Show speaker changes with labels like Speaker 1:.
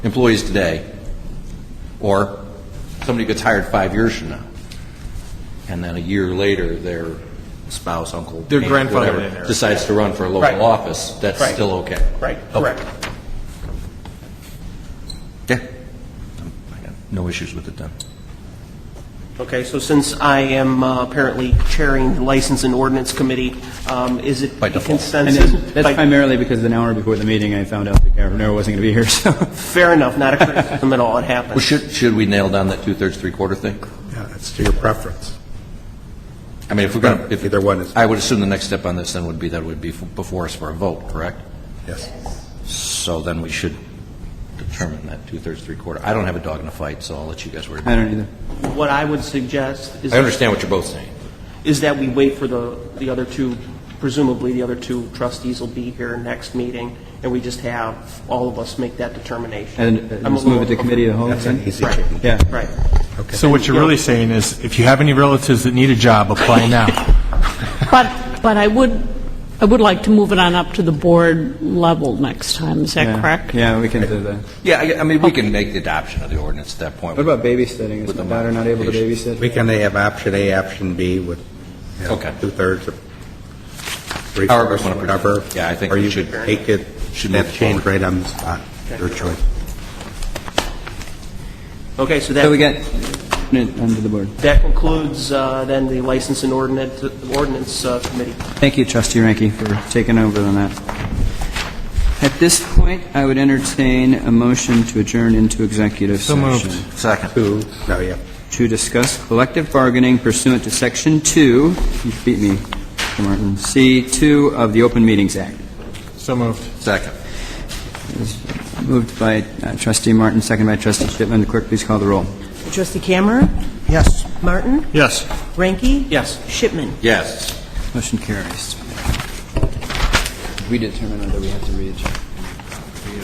Speaker 1: employees today, or somebody gets hired five years from now, and then a year later, their spouse, uncle,
Speaker 2: Their
Speaker 1: aunt,
Speaker 2: grandfather
Speaker 1: whatever,
Speaker 2: in there.
Speaker 1: decides to run for a
Speaker 2: Right.
Speaker 1: local office, that's
Speaker 2: Right.
Speaker 1: still okay.
Speaker 2: Right,
Speaker 1: Okay.
Speaker 2: correct.
Speaker 1: Yeah. Um, I got No issues with it then.
Speaker 3: Okay, so since I am uh, apparently chairing the License and Ordinance Committee, um, is it
Speaker 1: By
Speaker 3: the
Speaker 1: default.
Speaker 3: consensus?
Speaker 4: And that's that's
Speaker 3: by-
Speaker 4: primarily because an hour before the meeting, I found out that Governor wasn't going to be here, so.
Speaker 3: Fair enough, not a criticism at all, it
Speaker 1: Well,
Speaker 3: happened.
Speaker 1: should, should we nail down that two-thirds, three-quarter thing?
Speaker 5: Yeah, that's to your preference.
Speaker 1: I mean, if we're gonna, if.
Speaker 5: Either one is-
Speaker 1: I would assume the next step on this then would be that it would be f- before us for a vote, correct?
Speaker 5: Yes.
Speaker 1: So then we should determine that two-thirds, three-quarter. I don't have a dog in a fight, so I'll let you guys worry about it.
Speaker 4: I don't either.
Speaker 3: What I would suggest
Speaker 1: I
Speaker 3: is,
Speaker 1: understand what you're both saying.
Speaker 3: is that we wait for the, the other two, presumably the other two trustees will be here next meeting, and we just have all of us make that determination.
Speaker 4: And uh,
Speaker 3: I'm a
Speaker 4: just move it to
Speaker 3: little-
Speaker 4: committee of the whole
Speaker 5: That's an
Speaker 4: thing?
Speaker 5: easy
Speaker 3: Right.
Speaker 5: change.
Speaker 4: Yeah.
Speaker 3: Right.
Speaker 2: So what you're really saying is, if you have any relatives that need a job, apply now.
Speaker 6: But, but I would, I would like to move it on up to the board level next time, is that
Speaker 4: Yeah.
Speaker 6: correct?
Speaker 4: Yeah, we can do that.
Speaker 1: Yeah, I, I mean, we can make the adoption of the ordinance at that point.
Speaker 4: What about babysitting? Is
Speaker 1: With
Speaker 4: my
Speaker 1: the
Speaker 4: daughter not able to
Speaker 1: modification.
Speaker 4: babysit?
Speaker 5: We can have option A, option B with, you know,
Speaker 1: Okay.
Speaker 5: two-thirds or three
Speaker 1: However
Speaker 5: quarters,
Speaker 1: you wanna put it.
Speaker 5: whatever.
Speaker 1: Yeah, I think
Speaker 5: Or
Speaker 1: we
Speaker 5: you
Speaker 1: should-
Speaker 5: could take it,
Speaker 1: should move
Speaker 5: that
Speaker 1: it
Speaker 5: change
Speaker 1: forward.
Speaker 5: right on the spot, your choice.
Speaker 3: Okay, so
Speaker 4: So we
Speaker 3: that,
Speaker 4: got, under the board.
Speaker 3: that concludes uh, then the License and Ordinance, Ordinance uh, Committee.
Speaker 4: Thank you, trustee Ranky, for taking over on that. At this point, I would entertain a motion to adjourn into executive
Speaker 2: So moved.
Speaker 4: session
Speaker 1: Second.
Speaker 5: Two, no, yeah.
Speaker 4: to discuss collective bargaining pursuant to Section 2, you beat me, Martin, C2 of the Open Meetings Act.
Speaker 2: So moved.
Speaker 1: Second.
Speaker 4: Moved by uh, trustee Martin, seconded by trustee Shipman. The clerk, please call the roll.
Speaker 7: Trustee Cameron?
Speaker 2: Yes.
Speaker 7: Martin?
Speaker 2: Yes.
Speaker 7: Ranky?
Speaker 3: Yes.
Speaker 7: Shipman?
Speaker 1: Yes.
Speaker 4: Motion carries. We determine whether we have to readjourn.